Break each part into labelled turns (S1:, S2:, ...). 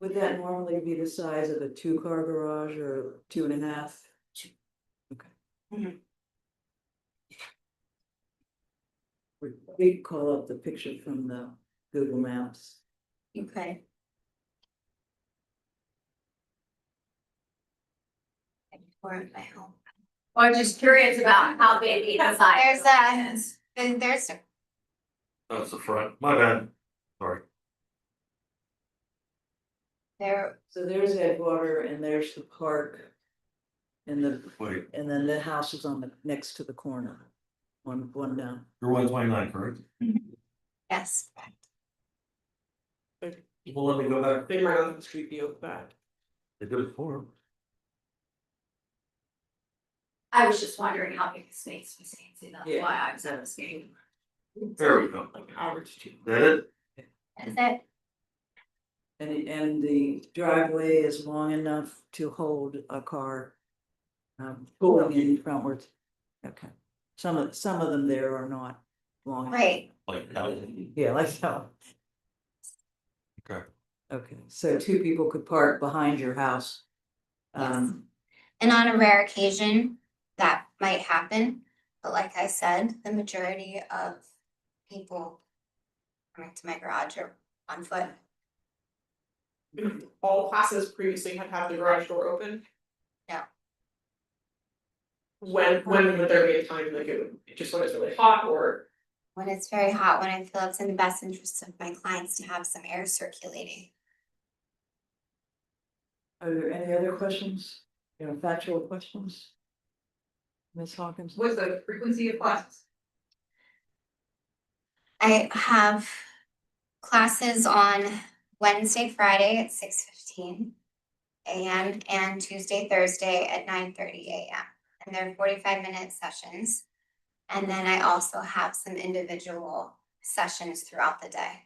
S1: Would that normally be the size of a two-car garage or two and a half? Okay.
S2: Mhm.
S1: We- We call up the picture from the Google Maps.
S2: Okay.
S3: Well, I'm just curious about how big the inside.
S2: There's a- Then there's, a-
S4: That's the front, my bad. Sorry,
S2: there,
S1: So there's Edgewater and there's the park. And the,
S4: wait,
S1: and then the house is on the, next to the corner, one, one down.
S4: you're one twenty nine, correct?
S2: yes,
S4: Well, let me go back.
S5: They might on the street view of that.
S4: They did it for him.
S3: I was just wondering how big the space was, Nancy, that's
S1: Yeah.
S3: why I was asking.
S4: There we go.
S5: Like an hour to two.
S4: That it?
S2: is it?
S1: And, it- and the driveway is long enough to hold a car. Um, pulling in frontwards. Okay, some of, some of them there are not long.
S2: Right,
S4: Like, that.
S1: Yeah, like that.
S4: Okay.
S1: Okay, so two people could park behind your house. Um,
S2: and on a rare occasion, that might happen, but like I said, the majority of people. Coming to my garage are on foot,
S5: All classes previously had had the garage door open.
S2: Yeah.
S5: When, when would there be a time like it would, just when it's really hot or,
S2: when it's very hot, when I feel it's in the best interest of my clients to have some air circulating.
S1: are there any other questions, you know, factual questions? Ms. Hawkins?
S6: What's the frequency of classes?
S2: I have classes on Wednesday, Friday at six fifteen AM and Tuesday, Thursday at nine thirty AM. And they're forty-five minute sessions. And then I also have some individual sessions throughout the day.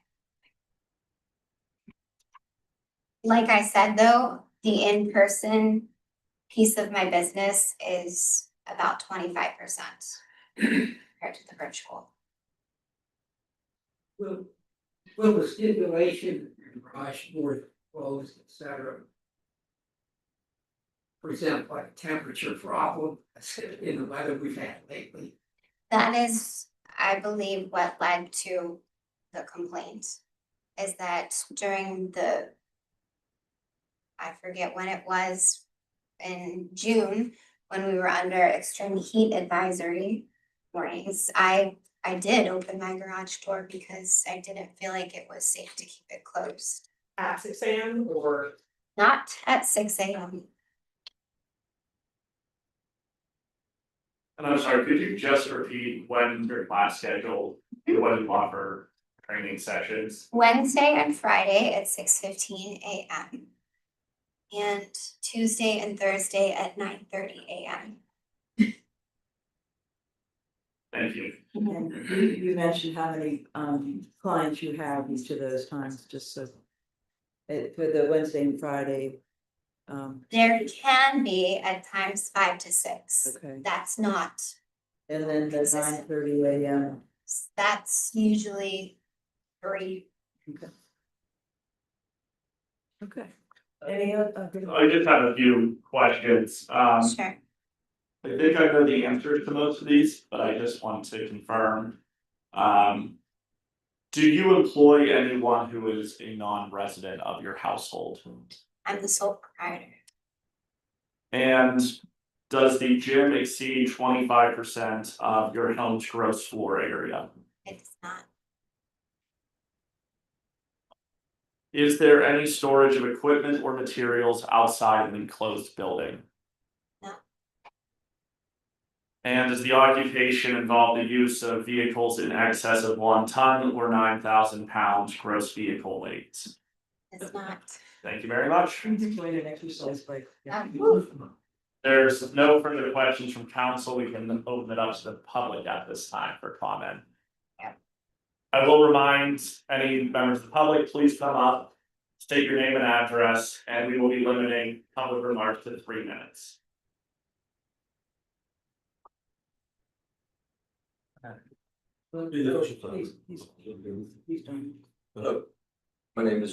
S2: Like I said, though, the in-person piece of my business is about twenty-five percent compared to the virtual.
S7: Will, will the stipulation, garage door closed, et cetera. For example, like temperature problem in the weather we've had lately.
S2: That is, I believe, what led to the complaint, is that during the, I forget when it was, in June, when we were under extreme heat advisory warnings, I, I did open my garage door because I didn't feel like it was safe to keep it closed.
S5: at six AM or?
S2: Not at six AM,
S8: And I'm sorry, could you just repeat when your class scheduled, when you offer training sessions?
S2: Wednesday and Friday at six fifteen AM. And Tuesday and Thursday at nine thirty AM.
S8: Thank you.
S1: And you, you mentioned how many, um, clients you have each of those times, just so. uh, for the Wednesday and Friday, um,
S2: There can be at times five to six.
S1: okay,
S2: That's not,
S1: and then the nine
S2: Consistent.
S1: thirty AM.
S2: that's usually three.
S1: Okay. Any uh, other?
S8: I just have a few questions. Um,
S2: Sure.
S8: I think I know the answers to most of these, but I just want to confirm. Um, do you employ anyone who is a non-resident of your household?
S2: I'm the sole proprietor.
S8: And does the gym exceed twenty-five percent of your home's gross floor area?
S2: It's not.
S8: Is there any storage of equipment or materials outside an enclosed building?
S2: No.
S8: And does the occupation involve the use of vehicles in excess of one ton or nine thousand pounds gross vehicle weight?
S2: It's not.
S8: Thank you very much.
S1: Explain an exercise like. yeah.
S2: Um,
S8: There's no further questions from council. We can open it up to the public at this time for comment. I will remind any members of the public, please come up, state your name and address, and we will be limiting public remarks to three minutes.
S1: Well,
S4: Do the-
S1: He's, he's, he's done.
S4: Hello.
S9: My name is